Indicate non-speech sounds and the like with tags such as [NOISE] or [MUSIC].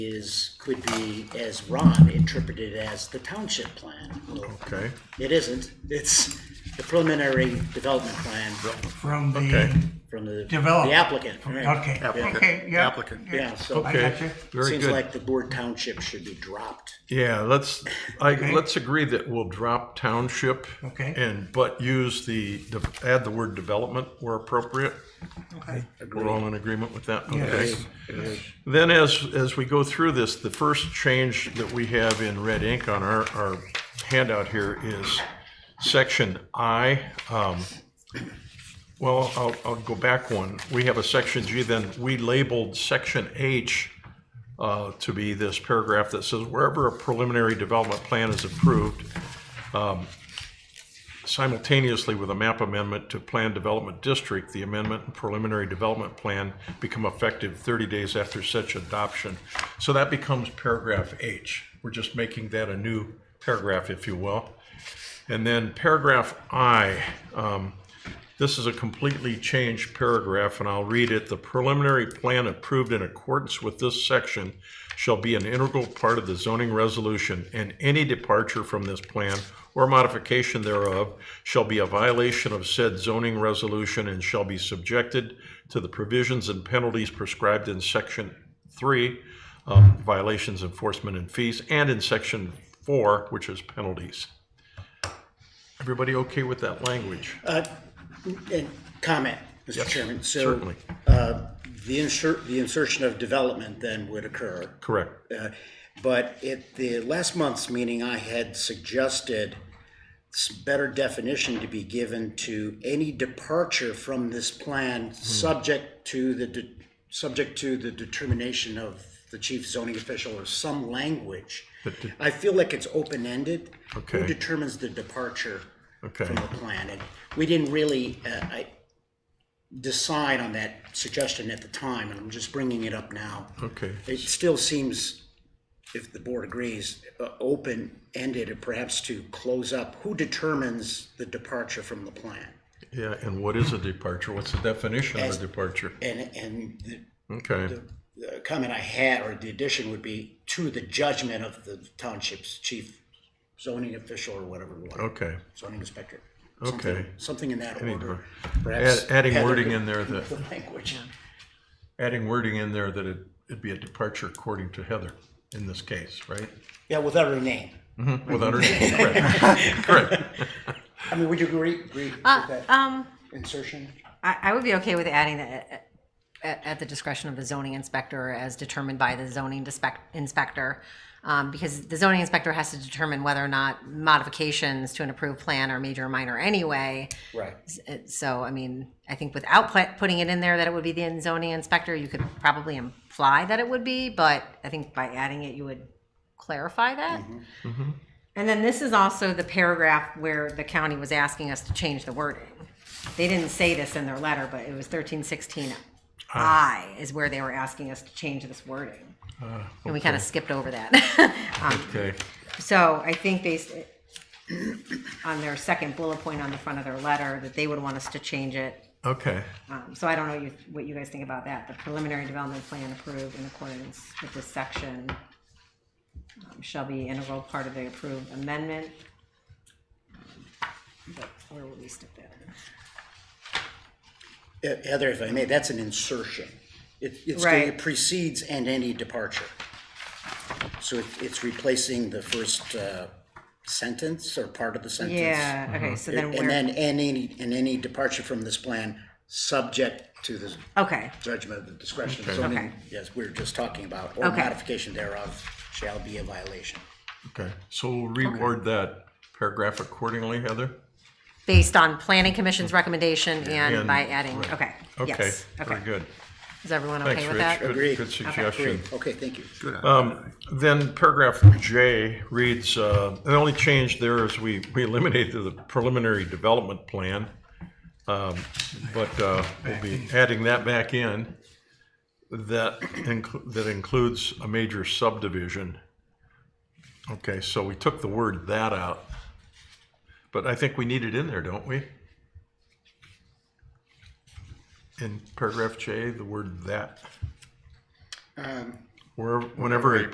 is, could be, as Ron interpreted it as the township plan. Well, Okay, It isn't, it's the preliminary development plan From Okay. the from the the developer. applicant. right. Okay, Applicant. okay, yeah. Applicant. Yeah, so I okay, got you. very seems good. like the word township should be dropped. Yeah, let's, I, Okay. let's agree that we'll drop township. Okay. And, but use the, de- add the word development where appropriate. Okay. We're all in agreement with that? Okay. Yes. Then as, as we go through this, the first change that we have in red ink on our, our handout here is section I. Um, Well, I'll, I'll go back one. We have a section G, then we labeled section H uh, to be this paragraph that says wherever a preliminary development plan is approved, simultaneously with a map amendment to Plan Development District, the amendment and preliminary development plan become effective 30 days after such adoption. So that becomes paragraph H. We're just making that a new paragraph, if you will. And then paragraph I, um, this is a completely changed paragraph, and I'll read it. The preliminary plan approved in accordance with this section shall be an integral part of the zoning resolution, and any departure from this plan or modification thereof shall be a violation of said zoning resolution and shall be subjected to the provisions and penalties prescribed in section three, um, violations, enforcement, and fees, and in section four, which is penalties. Everybody okay with that language? And comment, Mr. Chairman, so Certainly, the insert, the insertion of development then would occur. correct. But at the last month's meeting, I had suggested s- better definition to be given to any departure from this Hmm. plan, subject to the, de- subject to the determination of the chief zoning official or some language. I feel like it's open-ended. Okay. Who determines the departure Okay. from the plan? And we didn't really, uh, I, decide on that suggestion at the time, and I'm just bringing it up now. Okay, It still seems, if the board agrees, uh, open-ended, or perhaps to close up, who determines the departure from the plan? yeah, and what is a departure? What's the definition of As- a departure? And, and the- Okay, the comment I had, or the addition would be to the judgment of the township's chief zoning official or whatever, we want, okay. zoning inspector. Okay. Something- Something in that order. Anyway. Perhaps Add- Adding Heather wording could- [LAUGHS] in there that, The language. adding wording in there that it- it'd be a departure according to Heather in this case, right? Yeah, without her name. Without her, [LAUGHS] correct, correct. I mean, would you agree, agree with that Um, insertion? I, I would be okay with adding that at, at the discretion of the zoning inspector as determined by the zoning dispec- inspector. Um, because the zoning inspector has to determine whether or not modifications to an approved plan are major or minor anyway. Right. Uh, So, I mean, I think without pla- putting it in there that it would be the zoning inspector, you could probably imply that it would be, but I think by adding it, you would clarify that. And then this is also the paragraph where the county was asking us to change the wording. They didn't say this in their letter, but it was thirteen sixteen I is where they were asking us to change this wording. And we kind of skipped over that. [LAUGHS] Um, Okay, so I think based [CLEARS THROAT] on their second bullet point on the front of their letter, that they would want us to change it. okay, Um, So I don't know you- what you guys think about that. The preliminary development plan approved in accordance with this section um, shall be integral part of the approved amendment. Um, But Where will we stick that? Uh, Heather, if I may, that's an insertion. It, it's, Right. it precedes and any departure. So it- it's replacing the first uh, sentence or part of the sentence. Yeah, okay, so uh-huh. then And then where, and any, and any departure from this plan, subject to the okay, judgment of the discretion of Okay. zoning, as we were just talking about, or Okay. modification thereof shall be a violation. okay. So we'll reword that paragraph accordingly, Heather? based on planning commission's recommendation and And- by adding, right. okay, Okay, yes, very okay. good. Is everyone Thanks, okay with Rich. that? Good- Agreed. Good Okay. suggestion. Okay, thank you. Good. Then paragraph J reads, uh, the only change there is we, we eliminated the preliminary development plan. Um, But uh, we'll be adding that back in. That, inclu- that includes a major subdivision. Okay, so we took the word that out. But I think we need it in there, don't we? In paragraph J, the word that. wherever, whenever a